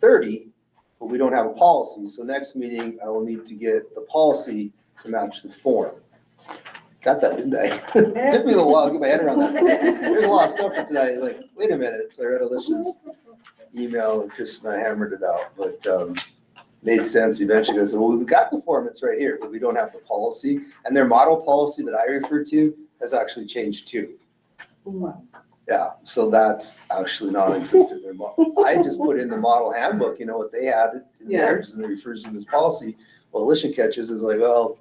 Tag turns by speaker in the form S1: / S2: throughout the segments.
S1: thirty, but we don't have a policy. So next meeting, I will need to get the policy to match the form. Got that, didn't I? Took me a little while to get my head around that. There's a lot of stuff for tonight, like, wait a minute, so I read Alicia's email, and Chris and I hammered it out, but, um, made sense eventually, because, well, we've got the form, it's right here, but we don't have the policy, and their model policy that I refer to has actually changed too. Yeah, so that's actually non-existent, their mo- I just put in the model handbook, you know, what they had in
S2: Yeah.
S1: theirs, and it refers to this policy. Well, Alicia catches is like, well,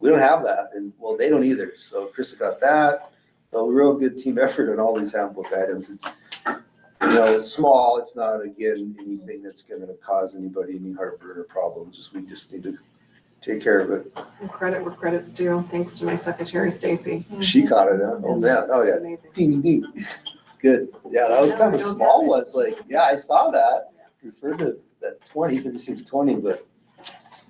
S1: we don't have that, and, well, they don't either, so Chris got that, a real good team effort on all these handbook items. It's, you know, it's small, it's not, again, anything that's gonna cause anybody any heartburn or problems, just, we just need to take care of it.
S2: Credit where credit's due, thanks to my secretary Stacy.
S1: She caught it, huh? Oh, man, oh, yeah,
S2: Amazing.
S1: ding, ding, ding. Good, yeah, that was kind of a small one, it's like, yeah, I saw that, referred to that twenty, fifty-six, twenty, but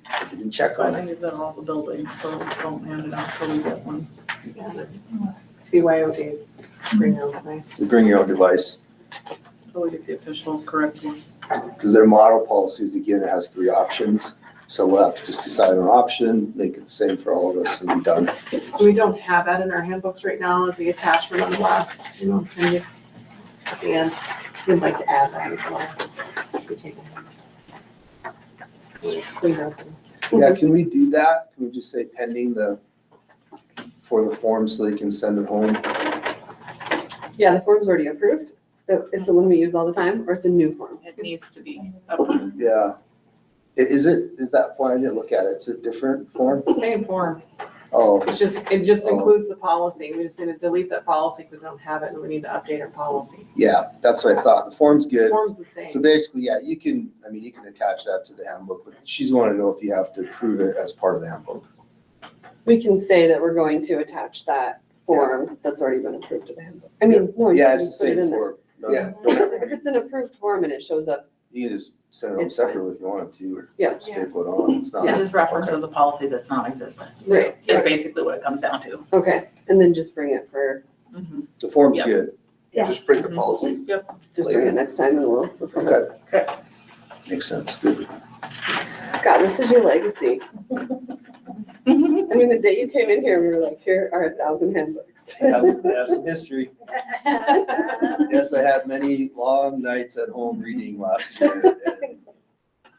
S1: I didn't check
S3: I
S1: on it.
S3: think it's in all the buildings, so don't hand it out till we get one.
S2: BYOD, bring out nice.
S1: Bring your own device,
S3: Till we get the official correct one.
S1: because their model policies, again, it has three options, so we'll have to just decide on an option, make it the same for all of us, and be done.
S2: We don't have that in our handbooks right now as the attachment on the last, you know, appendix. And we'd like to add that as well. We take it. It's cleaner.
S1: Yeah, can we do that? Can we just say pending the, for the form so they can send it home?
S4: Yeah, the form's already approved. The- It's the one we use all the time, or it's a new form.
S3: It needs to be approved.
S1: Yeah. I- Is it, is that form? I didn't look at it. It's a different form?
S2: It's the same form.
S1: Oh,
S2: It's just, it just
S1: Oh.
S2: includes the policy. We just need to delete that policy because we don't have it and we need to update our policy.
S1: yeah, that's what I thought. The form's good.
S2: Form's the same.
S1: So basically, yeah, you can, I mean, you can attach that to the handbook, but she's wanting to know if you have to approve it as part of the handbook.
S4: We can say that we're going to attach that form that's already been approved to the handbook. I mean, no, Oh, you
S1: Yeah,
S4: can
S1: it's the
S4: just put it
S1: same
S4: in there.
S1: form. No, Yeah,
S4: If it's an approved form and it shows up,
S1: you can just send it home
S4: It's fine.
S1: separately if you wanted to, or
S4: Yeah.
S1: staple it on. It's not.
S3: It just references a policy that's non-existent.
S4: right,
S3: Is basically what it comes down to.
S4: okay, and then just bring it for,
S3: Mm-hmm.
S1: The form's
S3: Yeah.
S1: good.
S4: Yeah.
S5: Just print the policy.
S4: just bring it next time and we'll. we'll come back.
S1: Okay. Makes sense. Good.
S4: Scott, this is your legacy.
S3: Mhm.
S4: I mean, the day you came in here, we were like, here are a thousand handbooks.
S1: Have have some history. Yes, I had many long nights at home reading last year. and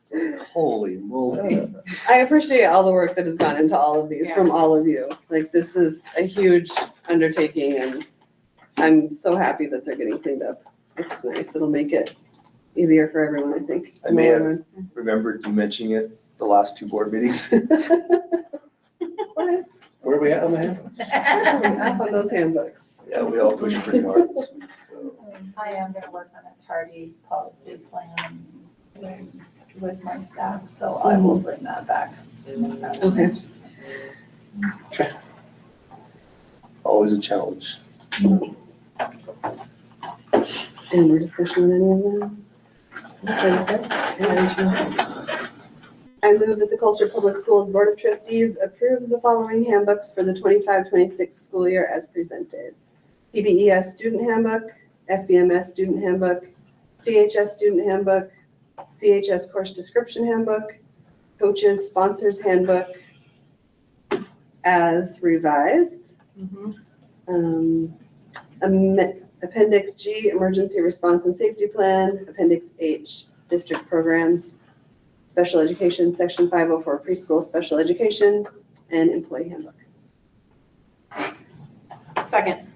S1: it's like, Holy moly.
S4: I appreciate all the work that has gone into all of these from all of you. Like, this is a huge undertaking and I'm so happy that they're getting cleaned up. It's nice. It'll make it easier for everyone, I think.
S1: I may have remembered you mentioning it the last two board meetings.
S4: What?
S1: Where are we at on the handbooks?
S4: Up on those handbooks.
S1: Yeah, we all pushed pretty hard this week. so.
S6: I am gonna work on a tardy policy plan with my staff, so I will bring that back.
S4: Okay.
S1: Always a challenge.
S4: Any more discussion on any of them? Okay. I move that the Colchester Public Schools Board of Trustees approves the following handbooks for the 25-26 school year as presented. PBES Student Handbook, FBMS Student Handbook, CHS Student Handbook, CHS Course Description Handbook, Coaches Sponsors Handbook as revised.
S3: Mm-hmm.
S4: Um, amen- Appendix G, Emergency Response and Safety Plan. Appendix H, District Programs, Special Education, Section 504 Preschool Special Education, and Employee Handbook.
S2: Second.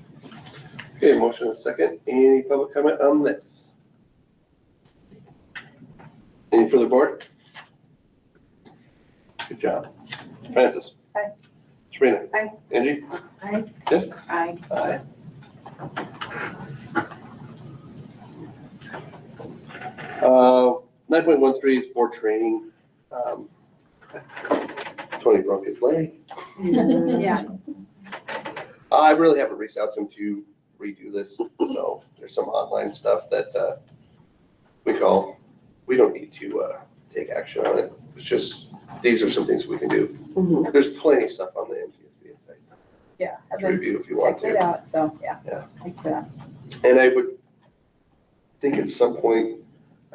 S5: Okay, motion and second. Any public comment on this? Any further board? Good job. Francis?
S6: Aye.
S5: Sabrina?
S4: Aye.
S5: Angie?
S6: Aye.
S5: Tiff?
S3: Aye.
S5: Aye. Uh, nine point one three is board training. Um, Tony broke his leg.
S2: Yeah.
S5: Uh, I really haven't reached out to him to redo this, so there's some online stuff that, uh, we call, we don't need to, uh, take action on it. It's just, these are some things we can do.
S4: Mhm.
S5: There's plenty of stuff on the MTSB site
S6: Yeah, I've
S5: to
S6: been
S5: review if you want
S6: checking it
S5: to.
S6: out, so, yeah.
S5: Yeah.
S6: Thanks for that.
S5: And I would think at some point,